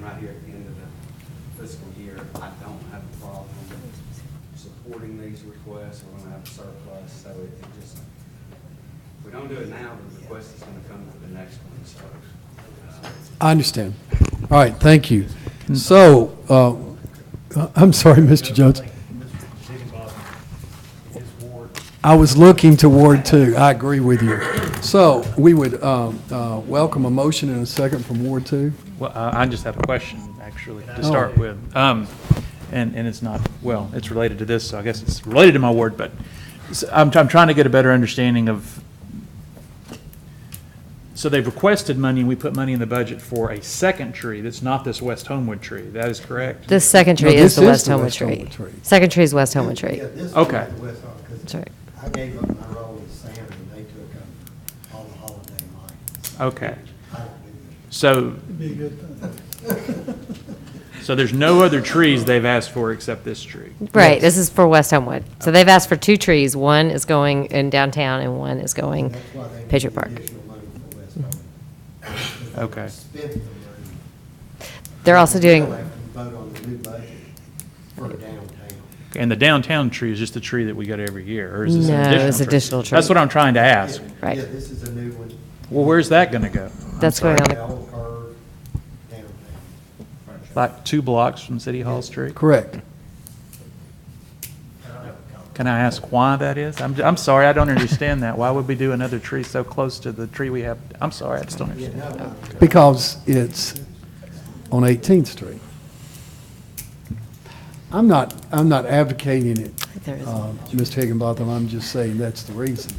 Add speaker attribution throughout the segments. Speaker 1: right here at the end of the fiscal year, I don't have a problem supporting these requests, we're gonna have a surplus, so it it just, if we don't do it now, the request is gonna come for the next one, so. uh,
Speaker 2: I understand. All right, thank you. So, uh, I'm sorry, Mr. Jones. I was looking to Ward Two. I agree with you. So, we would um, uh, welcome a motion and a second from Ward Two.
Speaker 3: Well, uh, I I just have a question, actually, to start with. Um, And, and it's not, well, it's related to this, so I guess it's related to my ward, but s- I'm, I'm trying to get a better understanding of, so they've requested money, and we put money in the budget for a second tree that's not this West Homewood tree. That is correct?
Speaker 4: The second
Speaker 2: No,
Speaker 4: tree
Speaker 2: this
Speaker 4: is the
Speaker 2: is
Speaker 4: West
Speaker 2: the
Speaker 4: Homewood
Speaker 2: West
Speaker 4: tree.
Speaker 2: Homewood tree.
Speaker 4: Second tree is West Homewood tree.
Speaker 5: Yeah, this
Speaker 3: Okay.
Speaker 5: is the West Hall, 'cause
Speaker 4: That's right.
Speaker 5: I gave up my role with Sam, and they took up all the holiday lights.
Speaker 3: Okay.
Speaker 5: I don't do
Speaker 3: So, so there's no other trees they've asked for except this tree?
Speaker 4: Right, this is for West Homewood. So they've asked for two trees. One is going in downtown and one is
Speaker 5: that.
Speaker 4: going
Speaker 5: That's why they
Speaker 4: Patriot
Speaker 5: need
Speaker 4: Park.
Speaker 5: additional money for West Hall. 'Cause they
Speaker 3: Okay.
Speaker 5: Spent the money.
Speaker 4: They're also doing,
Speaker 5: They'll have to vote on the new budget for downtown.
Speaker 3: And the downtown tree is just the tree that we get every year, or is this an
Speaker 4: No,
Speaker 3: additional tree?
Speaker 4: it's additional tree.
Speaker 3: That's what I'm trying to ask.
Speaker 5: Yeah,
Speaker 4: Right.
Speaker 5: Yeah, this is a new one.
Speaker 3: Well, where's that going to go? I'm
Speaker 4: That's going
Speaker 3: sorry.
Speaker 4: on the-
Speaker 5: Bell curve downtown.
Speaker 3: Like two blocks from City Hall Street?
Speaker 2: Correct.
Speaker 5: I don't have a comment.
Speaker 3: Can I ask why that is? I'm, I'm sorry, I don't understand that. Why would we do another tree so close to the tree we have? I'm sorry, I just don't
Speaker 5: Yeah,
Speaker 3: understand.
Speaker 5: no, no.
Speaker 2: Because it's on 18th Street. I'm not, I'm not advocating it,
Speaker 4: there is-
Speaker 2: uh, Mr. Higginbotham. I'm just saying that's the reason.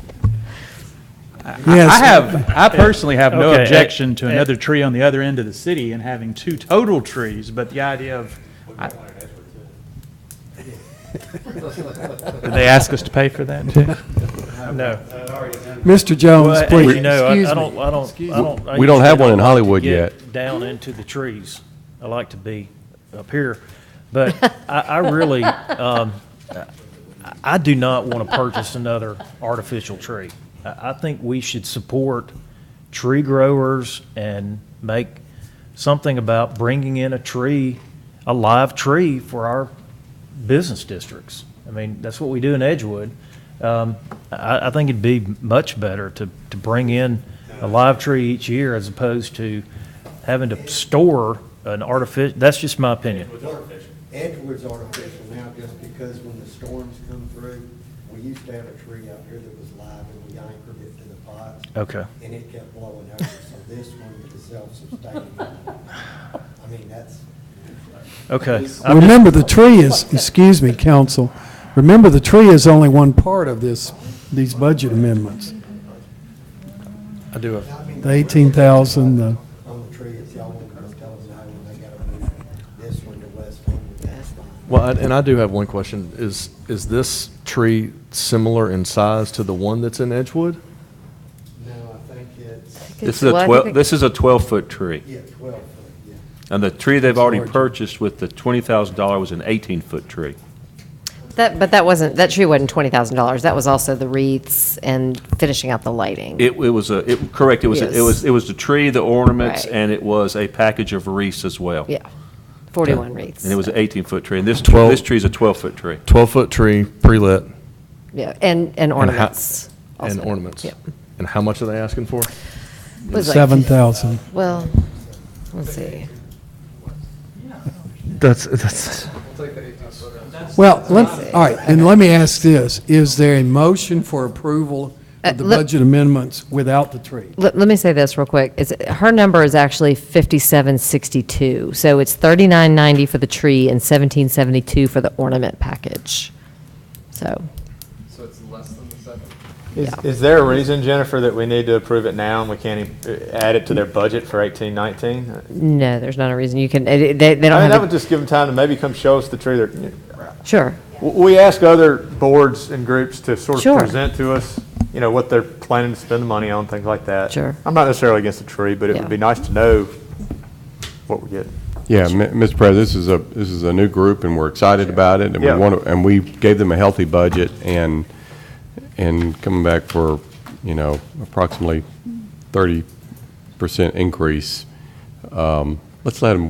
Speaker 3: I I have, I personally have no
Speaker 6: Okay, eh,
Speaker 3: objection to
Speaker 6: eh.
Speaker 3: another tree on the other end of the city and having two total trees, but the idea of, I- did they ask us to pay for that too?
Speaker 6: No.
Speaker 2: Mr. Jones,
Speaker 6: Well, as
Speaker 2: please,
Speaker 6: you know, I-
Speaker 2: excuse
Speaker 6: I
Speaker 2: me.
Speaker 6: don't, I don't, I don't. I
Speaker 7: We don't
Speaker 6: usually
Speaker 7: have one in
Speaker 6: like to
Speaker 7: Hollywood
Speaker 6: get Down into the trees. I like to be up here. But I, I really, um, I- I do not want to purchase another artificial tree. I, I think we should support tree growers and make something about bringing in a tree, a live tree for our business districts. I mean, that's what we do in Edgewood. Um, I, I think it'd be much better to, to bring in a live tree each year as opposed to having to store an artificial, that's just my opinion.
Speaker 5: Edgewood's artificial now just because when the storms come through, we used to have a tree out here that was live and we anchored it to the pots.
Speaker 6: Okay.
Speaker 5: And it kept blowing over, so this one is self-sustaining. I mean, that's,
Speaker 6: Okay. I'm just-
Speaker 2: Remember, the tree is, excuse me, council, remember, the tree is only one part of this, these budget amendments.
Speaker 3: I do.
Speaker 5: I mean,
Speaker 2: The 18,000, the,
Speaker 5: on the tree, it's y'all want to tell us how when they gotta move this one to West Homewood, that's fine.
Speaker 7: Well, I- and I do have one question. Is, is this tree similar in size to the one that's in Edgewood?
Speaker 5: No, I think it's,
Speaker 8: This is a
Speaker 4: Well, I think it-
Speaker 8: twelve, this is a twelve-foot tree,
Speaker 5: yeah, twelve foot, yeah.
Speaker 8: and the tree they've already purchased with the twenty thousand dollar was an eighteen-foot tree.
Speaker 4: That, but that wasn't, that tree wasn't twenty thousand dollars. That was also the wreaths and finishing out the lighting.
Speaker 8: It, it was a, it, correct, it was, a- it was, it was the tree, the ornaments,
Speaker 4: Right.
Speaker 8: and it was a package of wreaths as well.
Speaker 4: Yeah, forty-one wreaths.
Speaker 8: And it was an eighteen-foot tree, and this,
Speaker 7: Twelve-
Speaker 8: this tree's a twelve-foot tree.
Speaker 7: 12-foot tree, pre-lit,
Speaker 4: Yeah, and, and
Speaker 7: And how-
Speaker 4: ornaments.
Speaker 7: and
Speaker 4: also.
Speaker 7: ornaments.
Speaker 4: Yeah.
Speaker 7: And how much are they asking for?
Speaker 4: It was like-
Speaker 2: 7,000.
Speaker 4: Well, let's see.
Speaker 7: That's, that's.
Speaker 2: Well, let, all right, and let me ask this, is there a motion for approval of the
Speaker 4: Uh, let-
Speaker 2: budget amendments without the tree?
Speaker 4: Let, let me say this real quick. It's, her number is actually fifty-seven sixty-two. So it's thirty-nine ninety for the tree and seventeen seventy-two for the ornament package. So,
Speaker 9: So it's less than the second?
Speaker 4: yeah.
Speaker 10: Is, is there a reason, Jennifer, that we need to approve it now and we can't e- add it to their budget for eighteen nineteen?
Speaker 4: No, there's not a reason you can, it- it- they, they
Speaker 10: I mean,
Speaker 4: don't
Speaker 10: that would
Speaker 4: have,
Speaker 10: just give them time to maybe come show us the tree. They're-
Speaker 4: a- sure.
Speaker 10: w- We ask other boards and groups to sort
Speaker 4: Sure.
Speaker 10: of present to us, you know, what they're planning to spend the money on, things like that.
Speaker 4: Sure.
Speaker 10: I'm not necessarily against the tree, but it
Speaker 4: Yeah.
Speaker 10: would be nice to know what we're getting.
Speaker 7: Yeah, Mr. President, this is a, this is a new group, and we're excited about it, and
Speaker 10: we Yeah. wanna-
Speaker 7: and we gave them a healthy budget, and, and coming back for, you know, approximately 30% increase, let's let them